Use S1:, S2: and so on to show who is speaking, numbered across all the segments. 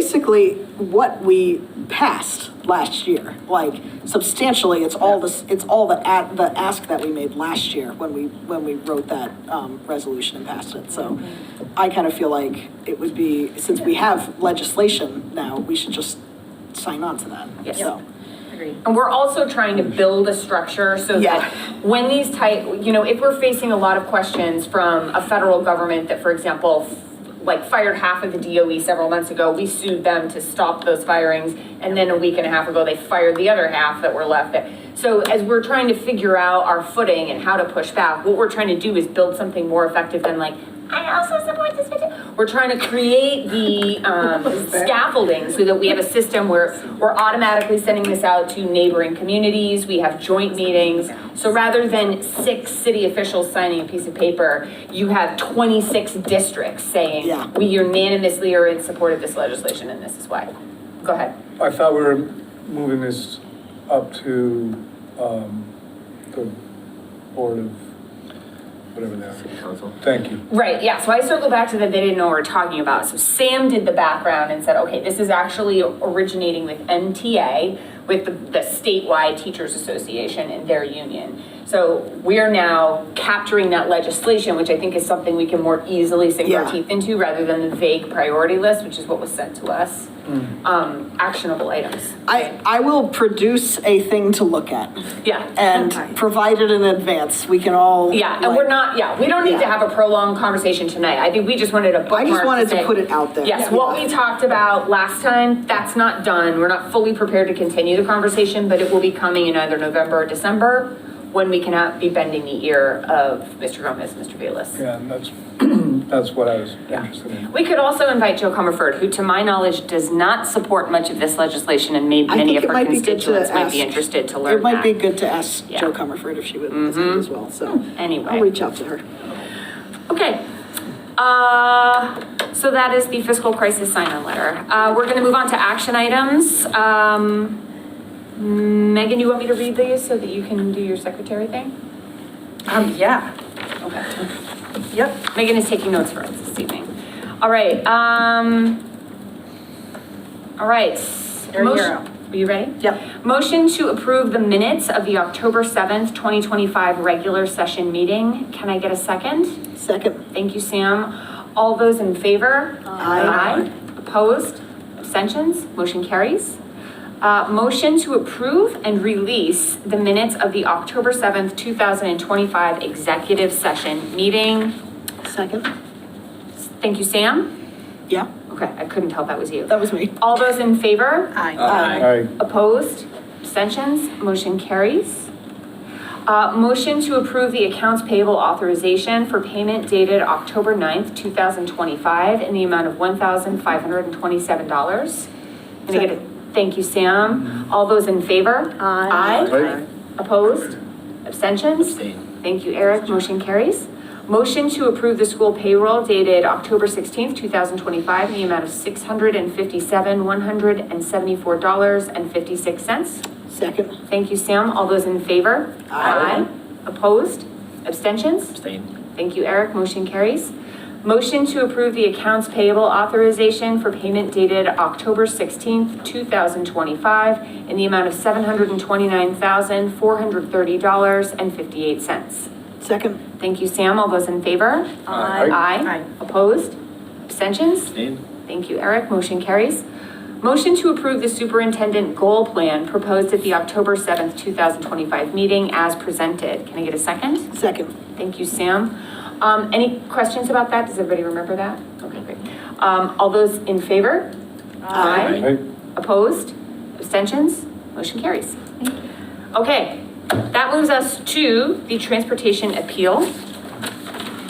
S1: basically what we passed last year. Like substantially, it's all this, it's all the at, the ask that we made last year when we, when we wrote that, um, resolution and passed it. So I kind of feel like it would be, since we have legislation now, we should just sign on to that.
S2: Yes.
S1: So,
S2: And we're also trying to build a structure so
S1: Yeah.
S2: that when these type, you know, if we're facing a lot of questions from a federal government that, for example, f- like fired half of the DOE several months ago, we sued them to stop those firings, and then a week and a half ago, they fired the other half that were left. That So as we're trying to figure out our footing and how to push back, what we're trying to do is build something more effective than like, I also support this petition. We're trying to create the um, scaffolding so that we have a system where we're automatically sending this out to neighboring communities. We have joint meetings. So rather than six city officials signing a piece of paper, you have 26 districts
S1: Yeah.
S2: saying, we unanimously are in support of this legislation and this is why. Go ahead.
S3: I thought we were moving this up to um, the Board of, whatever that is. Thank you.
S2: Right, yeah, so I circle back to that they didn't know what we are talking about. So Sam did the background and said, okay, this is actually originating with MTA, with the, the statewide teachers association and their union. So we're now capturing that legislation, which I think is something we can more easily sink
S1: Yeah.
S2: our teeth into rather than the vague priority list, which is what was sent to us.
S1: Mm.
S2: Um, actionable items.
S1: I, I will produce a thing to look at
S2: Yeah.
S1: and provide it in advance. We can all.
S2: Yeah, and we're
S1: like-
S2: not, yeah, we don't need to
S1: Yeah.
S2: have a prolonged conversation tonight. I think we just wanted a bookmark
S1: I just wanted to
S2: say-
S1: put it out there.
S2: Yes, what we talked about last time, that's not done. We're not fully prepared to continue the conversation, but it will be coming in either November or December when we cannot be bending the ear of Mr. Gomez, Mr. Velez.
S3: Yeah, and that's, that's what I was interested in.
S2: We could also invite Joe Comerford, who to my knowledge does not support much of this legislation and maybe
S1: I
S2: many
S1: think
S2: of
S1: it
S2: her
S1: might be good to
S2: constituents might be
S1: ask-
S2: interested to learn
S1: It might be
S2: that.
S1: good to ask
S2: Yeah. Mm-hmm. Hmm.
S1: Joe Comerford if she would listen as well, so.
S2: Anyway.
S1: I'll reach out to her.
S2: Okay. Uh, so that is the fiscal crisis sign-on letter. Uh, we're gonna move on to action items. Um, Megan, you want me to read these so that you can do your secretary thing?
S4: Um, yeah,
S2: Okay.
S4: yep.
S2: Megan is taking notes for us this evening. All right, um, all right.
S4: You're- you're
S2: Motion-
S4: up.
S2: Are you ready?
S4: Yep.
S2: Motion to approve the minutes of the October seventh, twenty twenty-five regular session meeting. Can I get a second?
S1: Second,
S2: Thank you, Sam. All those in favor?
S1: Aye.
S2: Opposed? Abstentions? Motion carries. Uh, Motion to approve and release the minutes of the October 7th, 2025 executive session meeting.
S1: second,
S2: Thank you, Sam.
S1: yeah,
S2: Okay, I couldn't tell if that was you.
S1: that was me.
S2: All those in favor?
S4: Aye.
S3: I,
S2: Opposed? Abstentions? Motion carries. Uh, motion to approve the accounts payable authorization for payment dated October 9th, two thousand twenty-five in the amount of one thousand five hundred and twenty-seven dollars. Can I get a, thank you, Sam. All those in favor?
S4: Aye.
S2: Aye. Opposed? Abstentions? Thank you, Eric. Motion carries. Motion to approve the school payroll dated October sixteenth, two thousand twenty-five in the amount of six hundred and fifty-seven, one hundred and seventy-four dollars and fifty-six cents.
S1: Second,
S2: Thank you, Sam. All those in favor?
S1: Aye.
S2: Opposed? Abstentions?
S5: Abstain.
S2: Thank you, Eric. Motion carries. Motion to approve the accounts payable authorization for payment dated October sixteenth, two thousand twenty-five in the amount of seven hundred and twenty-nine thousand, four hundred thirty dollars and fifty-eight cents.
S1: second,
S2: Thank you, Sam. All those in favor?
S3: Aye.
S2: Aye. Opposed? Abstentions?
S5: Abstain.
S2: Thank you, Eric. Motion carries. Motion to approve the superintendent goal plan proposed at the October 7th, 2025 meeting as presented. Can I get a second?
S1: second.
S2: Thank you, Sam. Um, Any questions about that? Does everybody remember that? Okay, great. Um, All those in favor?
S1: Aye.
S3: I,
S2: Opposed? Abstentions? Motion carries. Okay, that moves us to the transportation appeal.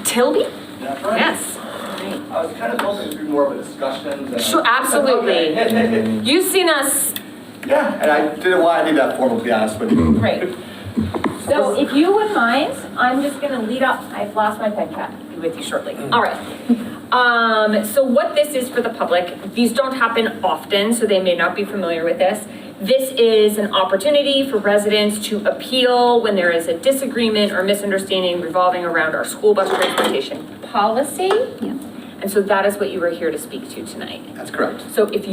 S2: Tilby?
S6: That's right.
S2: Yes.
S6: I was kind of hoping it'd be more of a discussion than. a-
S2: Sure, absolutely.
S6: Okay.
S2: You've seen us,
S6: Yeah, and I didn't want to be that formal, to be honest with you.
S2: great. So if you wouldn't mind, I'm just gonna lead up, I've lost my pen cap, I'll be with you shortly. All right. Um, so what this is for the public, these don't happen often, so they may not be familiar with this. This is an opportunity for residents to appeal when there is a disagreement or misunderstanding revolving around our school bus transportation policy. And so that is what you were here to speak to tonight.
S6: That's correct.
S2: So if